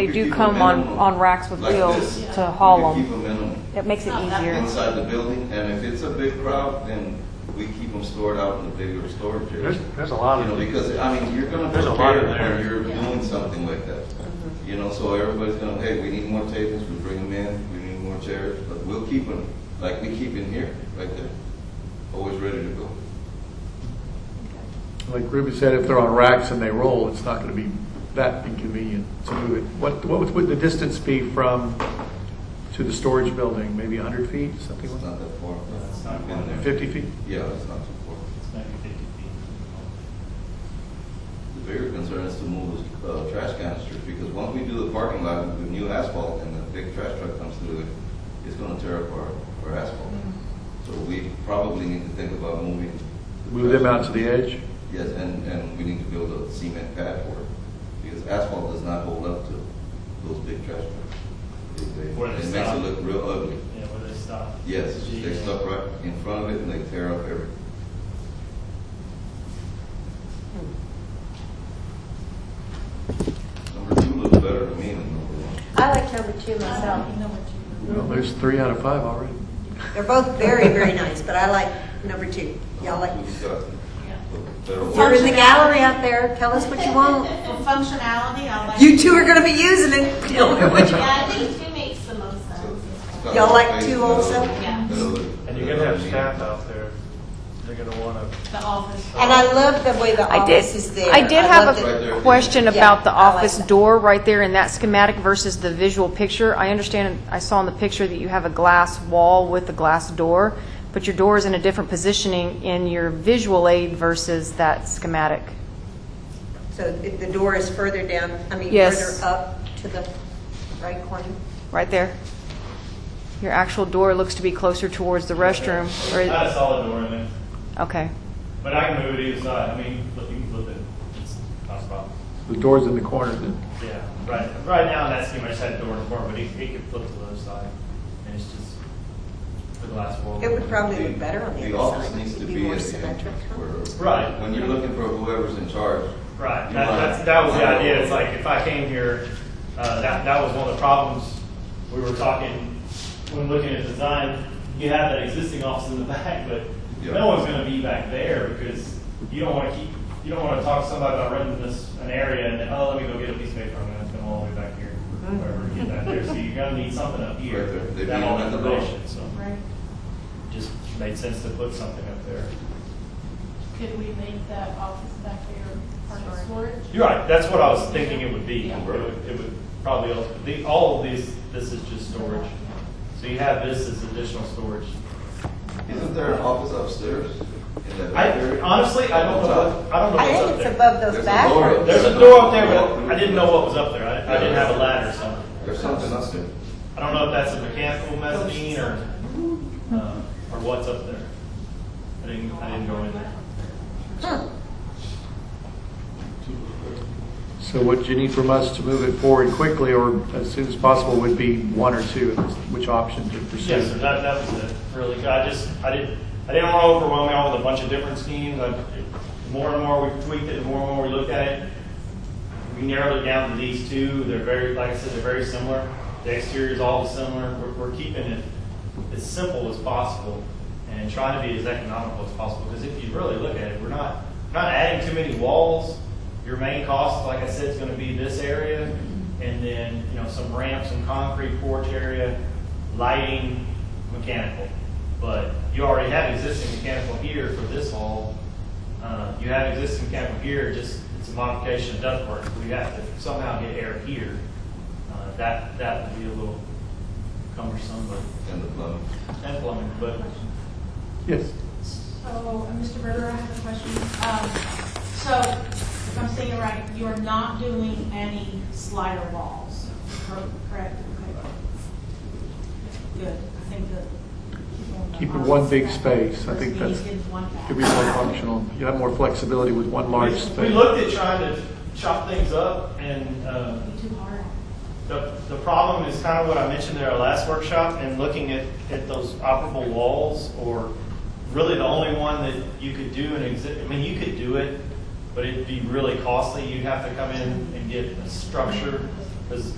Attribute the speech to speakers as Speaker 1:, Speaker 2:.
Speaker 1: They
Speaker 2: You
Speaker 1: do
Speaker 2: keep
Speaker 1: come
Speaker 2: them
Speaker 1: on,
Speaker 2: in.
Speaker 1: on racks with
Speaker 2: Like
Speaker 1: wheels
Speaker 2: this.
Speaker 1: to haul them.
Speaker 2: We can Keep them in them
Speaker 1: It makes it
Speaker 3: Oh,
Speaker 1: easier.
Speaker 2: inside the building, and if it's a big crowd, then we keep them stored out in the bigger storage area.
Speaker 4: There's, there's a lot
Speaker 2: You
Speaker 4: of,
Speaker 2: know, because, I mean, you're gonna
Speaker 4: There's a lot in
Speaker 2: prepare
Speaker 4: there.
Speaker 2: when you're doing something like that.
Speaker 1: Mm-hmm.
Speaker 2: You know, so everybody's gonna, hey, we need more tables, we bring them in, we need more chairs, but we'll keep them, like we keep in here, right there, always ready to go.
Speaker 5: Like Ruby said, if they're on racks and they roll, it's not going to be that inconvenient to move it. What, what would- would the distance be from, to the storage building? Maybe 100 feet, something
Speaker 2: It's
Speaker 5: like
Speaker 2: not that far.
Speaker 6: It's not
Speaker 2: I've been
Speaker 5: that?
Speaker 2: there.
Speaker 5: 50 feet?
Speaker 2: Yeah, it's not too far.
Speaker 6: It's maybe 50 feet.
Speaker 2: The bigger concern is to move the uh, trash canisters, because once we do the parking lot with the new asphalt and the big trash truck comes through it, it's gonna tear up our, our asphalt. So we probably need to think about moving. the
Speaker 5: Move them
Speaker 2: trash
Speaker 5: out to the edge?
Speaker 2: Yes, and, and we need to build a cement pad for it, because asphalt does not hold up to those big trash trucks. It- they-
Speaker 6: Where they
Speaker 2: It makes
Speaker 6: stop.
Speaker 2: it look real ugly.
Speaker 6: Yeah, where they stop.
Speaker 2: Yes, they
Speaker 6: Yeah.
Speaker 2: stuck right in front of it and they tear up everything. Number two looks better to me than number one.
Speaker 3: I like number two myself.
Speaker 5: Well, there's three out of five already.
Speaker 3: They're both very, very nice, but I like number two. Y'all like,
Speaker 2: Who's got the better one?
Speaker 3: you're in the gallery out there, tell us what you want.
Speaker 7: For functionality, I like.
Speaker 3: You two are gonna be using it. Tell me what you-
Speaker 7: Yeah, I think two makes the most sense.
Speaker 2: It's got
Speaker 3: Y'all like
Speaker 2: space,
Speaker 3: two oh
Speaker 2: better-
Speaker 3: also?
Speaker 7: Yeah.
Speaker 2: better look-
Speaker 4: and you're gonna have
Speaker 2: better
Speaker 4: staff out there, they're gonna wanna,
Speaker 7: The office.
Speaker 3: And I love the way the
Speaker 8: I did,
Speaker 3: office is there.
Speaker 8: I did have
Speaker 3: love the-
Speaker 2: Right there.
Speaker 8: a question
Speaker 3: Yeah,
Speaker 8: about the
Speaker 3: I like
Speaker 8: office
Speaker 3: that.
Speaker 8: door right there in that schematic versus the visual picture. I understand, I saw in the picture that you have a glass wall with a glass door, but your door is in a different positioning in your visual aid versus that schematic.
Speaker 3: So if the door is further down, I mean,
Speaker 8: Yes.
Speaker 3: further up to the right corner.
Speaker 8: Right there. Your actual door looks to be closer towards the restroom,
Speaker 6: Not a
Speaker 8: or,
Speaker 6: solid door in there,
Speaker 8: okay.
Speaker 6: but I can move it either side, I mean, look, you can flip it, it's not a problem.
Speaker 5: The door's in the corner then.
Speaker 6: Yeah, right, right now, that's pretty much that door in front, but he, he could flip to the other side, and it's just the glass wall.
Speaker 3: It would probably look
Speaker 2: The-
Speaker 3: better on the
Speaker 2: The
Speaker 3: other
Speaker 2: office
Speaker 3: side.
Speaker 2: needs to
Speaker 3: It'd
Speaker 2: be
Speaker 3: more
Speaker 2: at the
Speaker 3: symmetric.
Speaker 2: entrance where.
Speaker 6: Right.
Speaker 2: When you're looking for whoever's in charge.
Speaker 6: Right,
Speaker 2: you
Speaker 6: that,
Speaker 2: might-
Speaker 6: that's, that was the idea, it's like, if I came here, uh, that, that was one of the problems we were talking, when looking at design, you have that existing office in the back, but
Speaker 2: Yeah.
Speaker 6: no one's gonna be back there, because you don't wanna keep, you don't wanna talk to somebody about renting this, an area, and then, oh, let me go get a piece of paper, I'm gonna come all the way back here, wherever to get back there, so you're gonna need something up here,
Speaker 2: Right there. They'd be
Speaker 6: that all
Speaker 2: at the door.
Speaker 6: information, so.
Speaker 7: Right.
Speaker 6: Just made sense to put something up there.
Speaker 7: Could we make that office back there part of storage?
Speaker 6: You're right, that's what I was thinking it would be.
Speaker 7: Yeah.
Speaker 6: It would, it would probably, all- the, all of these, this is just storage. So you have this as additional storage.
Speaker 2: Isn't there an office upstairs in that
Speaker 6: I,
Speaker 2: back area?
Speaker 6: honestly, I don't know, what- I don't
Speaker 3: I
Speaker 6: know
Speaker 3: think
Speaker 6: what's
Speaker 3: it's
Speaker 6: up there.
Speaker 3: above those
Speaker 2: There's a door up
Speaker 3: bathrooms.
Speaker 6: There's a door up there, but I didn't know what was up there. I, I didn't have a ladder or something.
Speaker 2: There's something up there.
Speaker 6: I don't know if that's a mechanical mezzanine or, uh, or what's up there. I didn't, I didn't go in there.
Speaker 5: So what you need from us to move it forward quickly or as soon as possible would be one or two, which option to pursue?
Speaker 6: Yes, sir, that, that was it, really, I just, I didn't, I didn't want to overwhelm y'all with a bunch of different schemes, I, more and more we tweaked it, the more and more we looked at it, we narrowed it down to these two, they're very, like I said, they're very similar, the exterior's all similar, we're, we're keeping it as simple as possible, and trying to be as economical as possible, because if you really look at it, we're not, we're not adding too many walls, your main cost, like I said, is gonna be this area, and then, you know, some ramps, some concrete porch area, lighting, mechanical. But you already have existing mechanical here for this hall. Uh, You have existing mechanical here, just, it's a modification of ductwork. We have to somehow get air here. Uh, That, that would be a little cumbersome, but,
Speaker 2: And the plumbing.
Speaker 6: and plumbing, but
Speaker 5: Yes.
Speaker 7: So, uh, Mr. Berger, I have a question. Um, So, if I'm saying it right, you're not doing any slider walls, cor- correct? Okay. Good, I think that.
Speaker 5: Keep it one big space. I think that's-
Speaker 7: Meeting is one
Speaker 5: Could be more functional. You have more flexibility with one large
Speaker 6: we
Speaker 5: space.
Speaker 6: looked at trying to chop things up and uh,
Speaker 7: back. Too hard.
Speaker 6: The, the problem is kind of what I mentioned at our last workshop, and looking at, at those operable walls, or really the only one that you could do an exhibit, I mean, you could do it, but it'd be really costly, you'd have to come in and get a structure, because